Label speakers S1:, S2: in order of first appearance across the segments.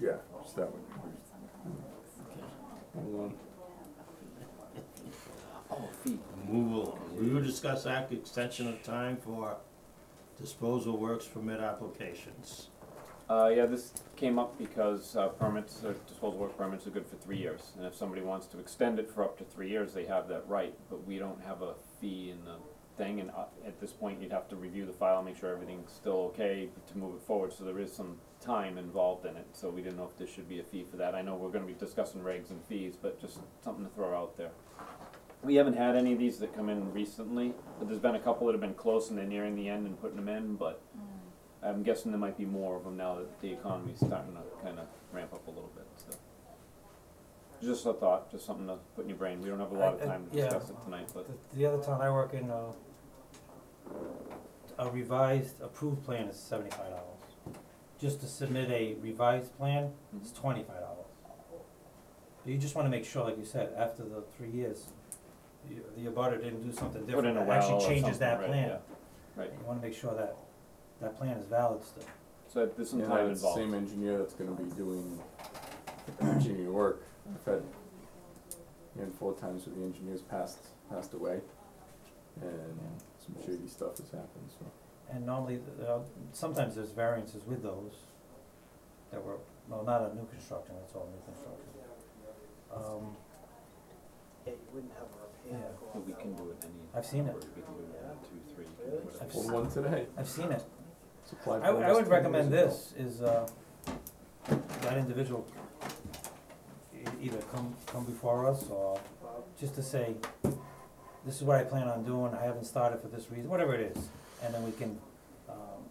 S1: Yeah, it's that one. Hold on.
S2: Oh,
S3: Move along. We will discuss act extension of time for disposal works permit applications.
S2: Uh, yeah, this came up because uh, permits, uh, disposal work permits are good for three years, and if somebody wants to extend it for up to three years, they have that right, but we don't have a fee in the thing, and uh, at this point, you'd have to review the file, make sure everything's still okay to move it forward, so there is some time involved in it, so we didn't know if there should be a fee for that. I know we're gonna be discussing regs and fees, but just something to throw out there. We haven't had any of these that come in recently, but there's been a couple that have been close and they're nearing the end and putting them in, but I'm guessing there might be more of them now that the economy's starting to kind of ramp up a little bit, so. Just a thought, just something to put in your brain, we don't have a lot of
S4: I- I-
S2: time to
S4: yeah.
S2: discuss it tonight, but,
S4: The, the other town I work in, uh, a revised approved plan is seventy-five dollars. Just to submit a revised plan, it's
S2: Mm-hmm.
S4: twenty-five dollars. You just wanna make sure, like you said, after the three years, you, the abutter didn't do something
S2: put in
S4: different,
S2: a
S4: that
S2: well or something, right,
S4: actually changes that
S2: yeah.
S4: plan.
S2: Right,
S4: You wanna make sure that, that plan is valid still.
S2: so there's some
S1: Yeah,
S2: time
S1: it's the
S2: involved.
S1: Same engineer that's gonna be doing engineer work. I've had, you know, four times where the engineers passed, passed away. And some shady stuff has happened, so.
S4: And normally, th- uh, sometimes there's variances with those that were, well, not on new construction, that's all new construction. Um,
S5: Yeah, you wouldn't have a repair.
S4: Yeah.
S5: go
S2: But
S5: out
S2: we
S5: that
S2: can
S5: way.
S2: do it any.
S4: I've seen it.
S2: number. We can do it one, two, three, we can do
S4: I've
S2: whatever.
S4: seen-
S1: Pulled one today.
S4: I've seen it.
S1: It's applied for
S4: I, w- I
S1: almost
S4: would
S1: 10 years
S4: recommend
S1: ago.
S4: this, is, uh, that individual e- either come, come before us, or just to say, this is what I plan on doing, I haven't started for this reason, whatever it is, and then we can, um,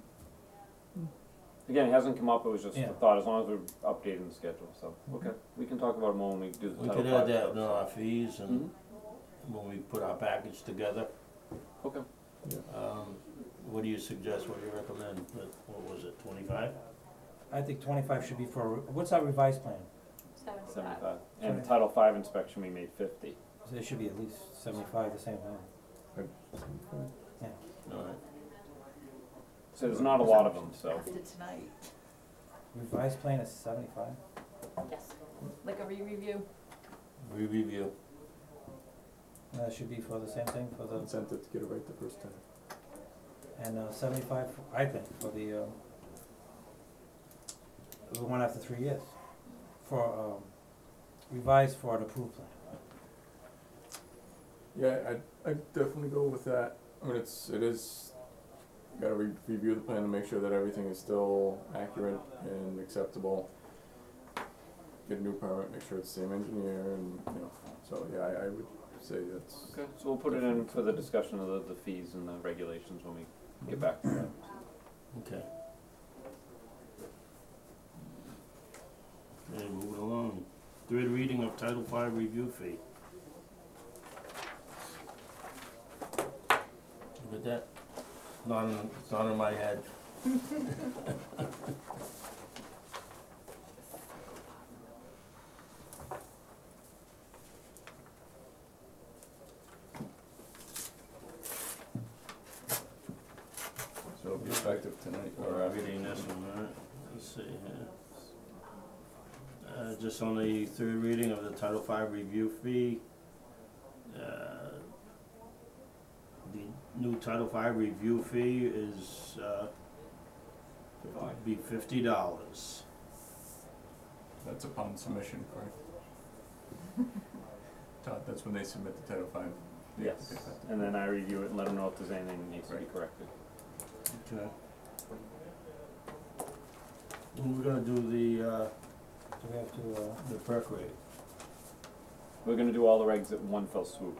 S2: Again, it hasn't come up, it was just
S4: Yeah. Mm-hmm.
S2: a thought, as long as we're updating the schedule, so, okay, we can talk about it more when we do the
S3: We
S2: title
S3: could add
S2: five stuff,
S3: that in
S2: so.
S3: our fees and
S2: Mhm.
S3: when we put our package together.
S2: Okay,
S3: Um, what do you suggest, what do you recommend, What- what was it, twenty-five?
S4: I think twenty-five should be for, a re- what's our revised plan?
S2: seventy-five, and
S4: Sorry.
S2: title five inspection, we made fifty,
S4: So It should be at least seventy-five, the same plan.
S3: Alright,
S2: so there's not a lot of them, so.
S6: After tonight.
S4: Revised plan is seventy-five?
S6: Yes, like a re-review.
S3: re-review,
S4: That should be for the same thing, for the,
S1: Incentive to get it right the first time.
S4: and uh, seventy-five, for- I think, for the, um, the one after three years, for, um, revised for an approved plan.
S1: Yeah, I, I'd definitely go with that. I mean, it's, it is, you gotta re- review the plan to make sure that everything is still accurate and acceptable. Get a new permit, make sure it's the same engineer and, you know, so, yeah, I, I would say that's,
S2: Okay, so we'll put it in for the discussion of the, the fees and the regulations when we get back to that.
S3: okay. Okay, moving along, third reading of Title Five review fee. Look at that, not in, it's not in my head.
S1: so it'll be effective tonight.
S3: Or I'm reading this one, alright, let's see here. Uh, just on the third reading of the Title Five review fee, uh, the new Title Five review fee is, uh, be fifty dollars.
S1: That's upon submission, correct? Todd, that's when they submit the Title Five.
S2: Yes, and then I review it and let them know if there's anything that needs to be
S1: Right.
S2: corrected.
S3: Okay. And we're gonna do the, uh,
S4: Do we have to, uh,
S3: the perk rate,
S2: We're gonna do all the regs at one fell swoop,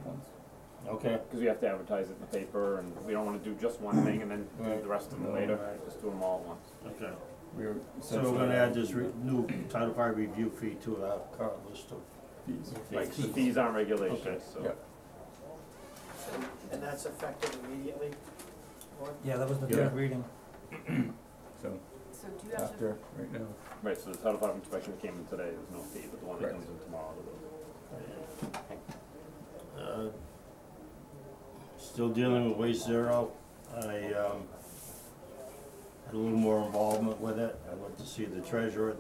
S3: okay?
S2: cause we have to advertise it in the paper and we don't wanna do just one thing and then do
S3: Right.
S2: the rest of them
S1: No.
S2: later,
S3: Right.
S2: just do them all at once.
S3: Okay.
S1: We were.
S3: So we're gonna add this re- new Title Five review fee to our current list of
S1: Fees.
S2: Like, the
S3: fees.
S2: fees aren't regulations, so.
S1: Yeah.
S5: And that's effective immediately, Lauren?
S4: yeah, that was the
S1: Yeah.
S4: third reading.
S1: So
S6: So do you have to,
S1: right now.
S2: Right, so the title five inspection that came in today, there's no fee, but the one that
S1: Right.
S2: comes in tomorrow, there will.
S3: Uh, Still dealing with Waste Zero. I, um, had a little more involvement with it. I went to see the treasurer